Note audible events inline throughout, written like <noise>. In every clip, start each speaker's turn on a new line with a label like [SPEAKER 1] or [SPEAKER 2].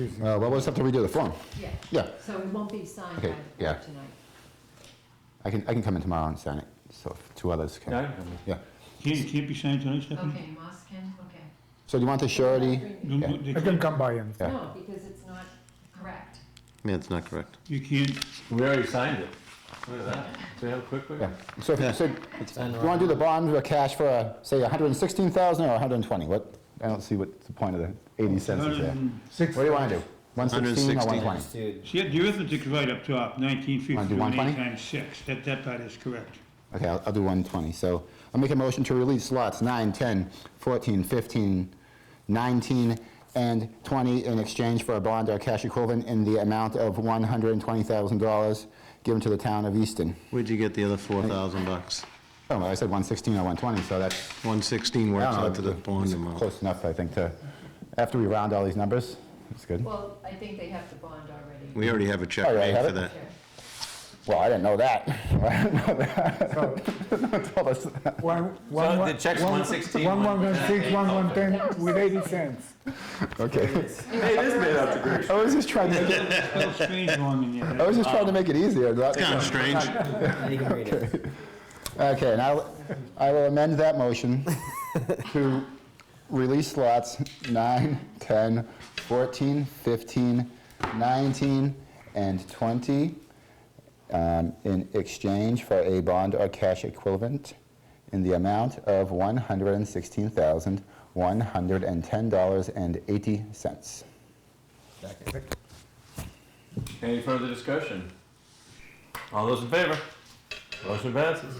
[SPEAKER 1] Uh, well, we'll just have to redo the form.
[SPEAKER 2] Yeah.
[SPEAKER 1] Yeah.
[SPEAKER 2] So it won't be signed by
[SPEAKER 1] Okay,
[SPEAKER 2] the
[SPEAKER 1] yeah.
[SPEAKER 2] board tonight.
[SPEAKER 1] I can, I can come in tomorrow and sign it, so if two others can.
[SPEAKER 3] Yeah, I don't know.
[SPEAKER 1] Yeah.
[SPEAKER 4] Can't, it can't be signed tonight, Stephanie?
[SPEAKER 2] Okay, Moss can, okay.
[SPEAKER 1] So do you want the surety?
[SPEAKER 4] No, no, they
[SPEAKER 5] I can come by and,
[SPEAKER 1] Yeah.
[SPEAKER 2] No, because it's not correct.
[SPEAKER 6] Yeah, it's not correct.
[SPEAKER 4] You can't,
[SPEAKER 3] We already signed it. Look at that. See how quick we
[SPEAKER 1] Yeah.
[SPEAKER 3] are?
[SPEAKER 1] So if you, so, do you want to do the bond or cash for, uh, say, 116,000 or 120? What, I don't see what the point of the 80 cents is there.
[SPEAKER 4] um,
[SPEAKER 5] six,
[SPEAKER 1] What do you want to do? 116 or 120?
[SPEAKER 4] see, the arithmetic's right up top, nineteen
[SPEAKER 1] Wanna do
[SPEAKER 4] fifty-two and
[SPEAKER 1] 120?
[SPEAKER 4] eight times six, that, that part is correct.
[SPEAKER 1] Okay, I'll, I'll do 120. So I'll make a motion to release lots 9, 10, 14, 15, 19, and 20 in exchange for a bond or cash equivalent in the amount of $120,000 given to the town of Easton.
[SPEAKER 6] Where'd you get the other four thousand bucks?
[SPEAKER 1] Oh, well, I said 116 or 120, so that's,
[SPEAKER 6] One sixteen
[SPEAKER 1] I
[SPEAKER 6] works
[SPEAKER 1] don't know,
[SPEAKER 6] out to the bond
[SPEAKER 1] it's
[SPEAKER 6] amount.
[SPEAKER 1] close enough, I think, to, after we round all these numbers, that's good.
[SPEAKER 2] Well, I think they have the bond already.
[SPEAKER 6] We already have a check
[SPEAKER 1] Oh, yeah, I
[SPEAKER 6] made
[SPEAKER 1] have
[SPEAKER 6] for
[SPEAKER 1] it.
[SPEAKER 6] that.
[SPEAKER 2] Sure.
[SPEAKER 1] Well, I didn't know that. I didn't know <laughs>
[SPEAKER 5] so,
[SPEAKER 1] that. Tell us.
[SPEAKER 5] one, one,
[SPEAKER 3] So
[SPEAKER 5] one.
[SPEAKER 3] the check's 116,
[SPEAKER 5] One, one, one, six, one, one, ten,
[SPEAKER 2] Okay.
[SPEAKER 5] with eighty cents.
[SPEAKER 1] Okay.
[SPEAKER 3] Hey, it is made out to great.
[SPEAKER 1] I was just trying to, make it-
[SPEAKER 4] That's a little strange going in there.
[SPEAKER 1] I was just trying to make it easier, not-
[SPEAKER 6] Kind of strange.
[SPEAKER 1] Okay, and I'll- I will amend that motion to release lots 9, 10, 14, 15, 19, and 20 um, in exchange for a bond or cash equivalent in the amount of $116,110.80.
[SPEAKER 3] Any further discussion? All those in favor? Motion passes.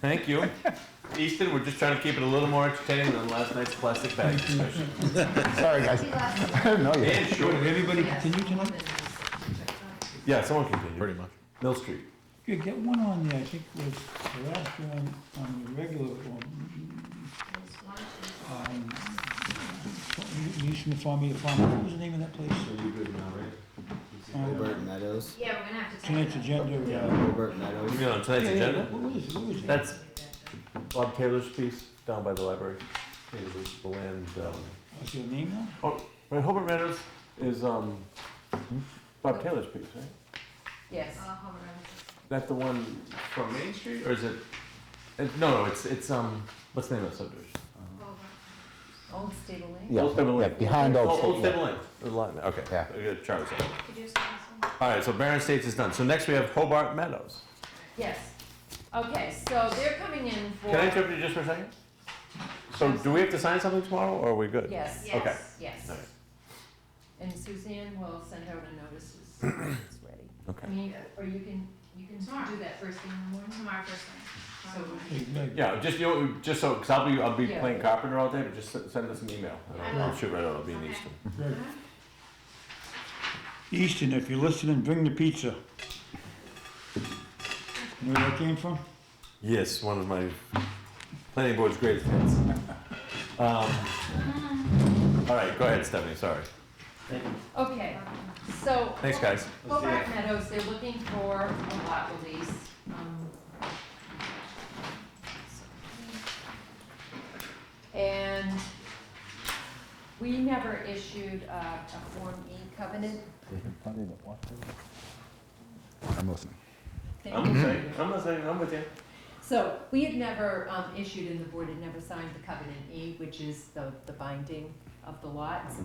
[SPEAKER 3] Thank you. Easton, we're just trying to keep it a little more entertaining than last night's plastic bag discussion. <laughs>
[SPEAKER 1] Sorry, <laughs> guys. I didn't know you.
[SPEAKER 3] And sure.
[SPEAKER 4] Everybody
[SPEAKER 2] Yes,
[SPEAKER 4] continue tonight?
[SPEAKER 2] woman is-
[SPEAKER 3] Yeah, someone continue. Pretty much. Mill Street.
[SPEAKER 4] Good, get one on there, I think was the last one on the regular one. um, Mission Farm, Media Farm, what was the name of that place? Um,
[SPEAKER 7] Gilbert Meadows.
[SPEAKER 2] Yeah, we're gonna have to.
[SPEAKER 4] Tonight's
[SPEAKER 2] type
[SPEAKER 4] agenda, uh,
[SPEAKER 7] Gilbert Meadows.
[SPEAKER 3] You mean on
[SPEAKER 4] yeah,
[SPEAKER 3] tonight's
[SPEAKER 4] yeah,
[SPEAKER 3] agenda?
[SPEAKER 4] what was it, what was it?
[SPEAKER 3] That's Bob Taylor's piece down by the library. It was the land, um,
[SPEAKER 4] What's your name now?
[SPEAKER 3] Right, Hobart Meadows is um, Bob Taylor's piece, right?
[SPEAKER 2] it. Yes.
[SPEAKER 3] That the one from Main Street, or is it? it no, no, it's it's um. What's the name of the subdivision?
[SPEAKER 2] Old Stable Lane.
[SPEAKER 1] Yeah,
[SPEAKER 3] Old Stable Lane.
[SPEAKER 1] yeah, behind Old
[SPEAKER 3] Oh,
[SPEAKER 1] Stable.
[SPEAKER 3] Old Stable Lane. The line there, Okay.
[SPEAKER 1] Yeah.
[SPEAKER 3] I got Charles. All right. So Barron Estates is done. So next we have Hobart Meadows.
[SPEAKER 2] Yes. Okay, so they're coming in for.
[SPEAKER 3] Can I interrupt you just for a second? So do we have to sign something tomorrow, or are we good?
[SPEAKER 2] Yes,
[SPEAKER 3] Okay.
[SPEAKER 2] yes, yes.
[SPEAKER 3] All right.
[SPEAKER 2] And Suzanne will send out a notice as soon as it's ready. I
[SPEAKER 3] Okay.
[SPEAKER 2] mean, uh, or you can, you can do that first thing in the morning. Tomorrow first thing. So
[SPEAKER 4] Hey, Meg.
[SPEAKER 3] Yeah, just you know, just so because I'll be I'll be
[SPEAKER 2] Yeah.
[SPEAKER 3] playing carpenter all day, but just s- send us an email. and
[SPEAKER 7] I
[SPEAKER 3] I'll,
[SPEAKER 7] will.
[SPEAKER 3] I'll shoot right out. I'll be in Easton.
[SPEAKER 4] Easton, if you're listening, bring the pizza. You know where that came from?
[SPEAKER 3] Yes, one of my planning board's greatest hits. Um, all right, go ahead, Stephanie. Sorry.
[SPEAKER 2] Okay, so.
[SPEAKER 3] Thanks, guys.
[SPEAKER 2] Hobart Meadows, they're looking for a lot release. um, And we never issued uh, a Form E covenant.
[SPEAKER 1] I'm listening.
[SPEAKER 2] Thank
[SPEAKER 3] I'm
[SPEAKER 2] you.
[SPEAKER 3] listening. I'm listening. I'm with you.
[SPEAKER 2] So we had never um, issued, and the board had never signed the covenant E, which is the, the binding of the lots.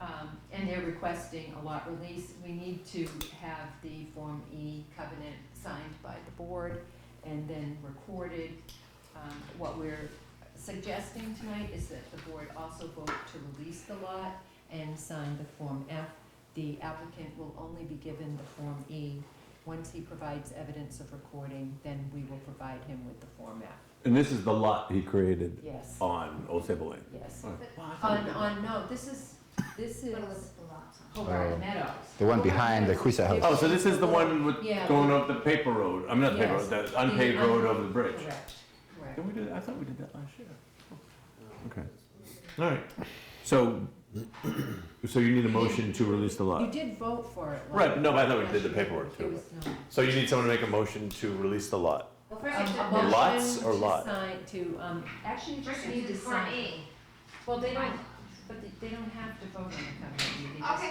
[SPEAKER 2] Um, And they're requesting a lot release. We need to have the Form E covenant signed by the board and then recorded. Um, What we're suggesting tonight is that the board also vote to release the lot and sign the Form F. The applicant will only be given the Form E once he provides evidence of recording, then we will provide him with the format.
[SPEAKER 3] And this is the lot he created
[SPEAKER 2] Yes,
[SPEAKER 3] on Old Sable Lane.
[SPEAKER 2] yes.
[SPEAKER 3] Alright.
[SPEAKER 2] On, on, no, this is, this is
[SPEAKER 1] Oh.
[SPEAKER 2] Hobart Meadows.
[SPEAKER 1] The one behind the Quisa House.
[SPEAKER 3] Oh, so this is the one with
[SPEAKER 2] Yeah.
[SPEAKER 3] going up the paper road. I'm not the paper
[SPEAKER 2] Yes.
[SPEAKER 3] road. The unpaved road over the bridge.
[SPEAKER 2] Correct, correct.
[SPEAKER 3] Did we do that? I thought we did that last year. Okay. All right. So, so you need a motion to release the lot.
[SPEAKER 2] You did vote for it. like-
[SPEAKER 3] Right, no, but I thought we did the
[SPEAKER 2] last year.
[SPEAKER 3] paperwork too.
[SPEAKER 2] There was no.
[SPEAKER 3] So you need someone to make a motion to release the lot.
[SPEAKER 7] Well,
[SPEAKER 2] Um, a
[SPEAKER 3] have- Lots
[SPEAKER 2] motion
[SPEAKER 3] or
[SPEAKER 2] to
[SPEAKER 3] lot?
[SPEAKER 2] sign- To, um, actually, you just need to sign. Well, they don't, but they- they don't have to vote on the covenant. you can just
[SPEAKER 7] Okay.